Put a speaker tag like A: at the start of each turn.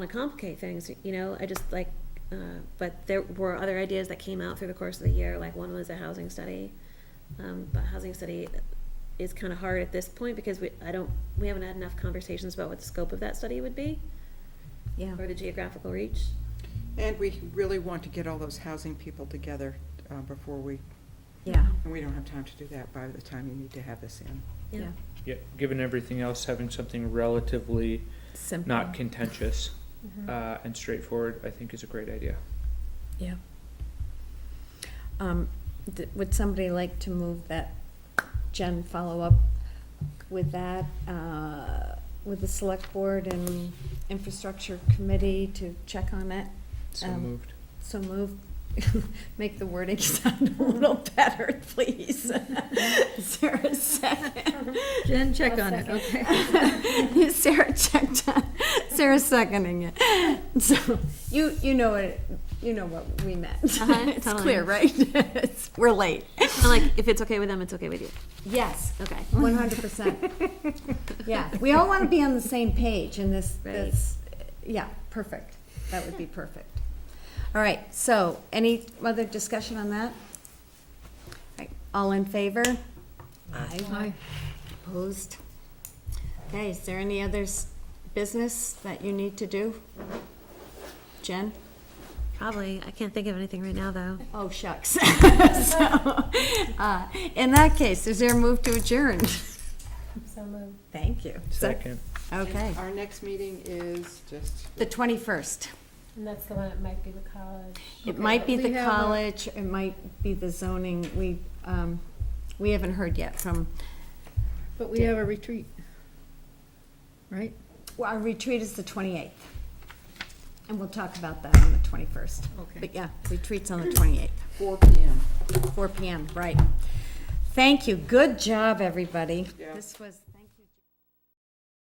A: want to complicate things, you know, I just like, uh, but there were other ideas that came out through the course of the year, like one was a housing study. Um, but housing study is kind of hard at this point because we, I don't, we haven't had enough conversations about what the scope of that study would be
B: Yeah.
A: or the geographical reach.
C: And we really want to get all those housing people together uh, before we,
B: Yeah.
C: and we don't have time to do that by the time you need to have this in.
A: Yeah.
D: Yeah, given everything else, having something relatively
B: Simple. Mm-hmm.
D: not contentious uh, and straightforward, I think is a great idea.
B: Yeah. Um, d- would somebody like to move that Jen follow up with that, uh, with the select board and infrastructure committee to check on it?
D: So
B: Um,
D: moved.
B: So move, make the wording sound a little better, please. Is there a second?
E: Jen, check
B: I'll
E: on it, okay?
B: okay. Sarah checked on, Sarah's seconding it. So, you, you know what, you know what we meant.
A: Uh-huh,
B: It's
A: totally.
B: clear, right? It's- We're late.
A: And like, if it's okay with them, it's okay with you.
B: Yes,
A: Okay.
B: one hundred percent. Yeah, we all want to be on the same page in this,
A: Right.
B: this, yeah, perfect. That would be perfect. All right, so any other discussion on that? All right, All in favor?
E: Aye.
B: Opposed? Okay, is there any others business that you need to do? Jen?
A: Probably. I can't think of anything right now, though.
B: Oh, shucks. So, uh, In that case, is there a move to adjourn?
E: So moved.
B: Thank you. So-
D: Second.
B: Okay,
C: Our next meeting is just.
B: the 21st.
E: And that's the one, it might be the college.
B: It might be
E: We
B: the
E: have a-
B: college, it might be the zoning, we, um, we haven't heard yet from,
E: But we have a retreat, right?
B: well, our retreat is the 28th. And we'll talk about that on the 21st.
E: Okay.
B: But yeah, retreat's on the 28th.
C: Four PM.
B: 4 PM, right. Thank you. Good job, everybody.
C: Yeah.
B: This was.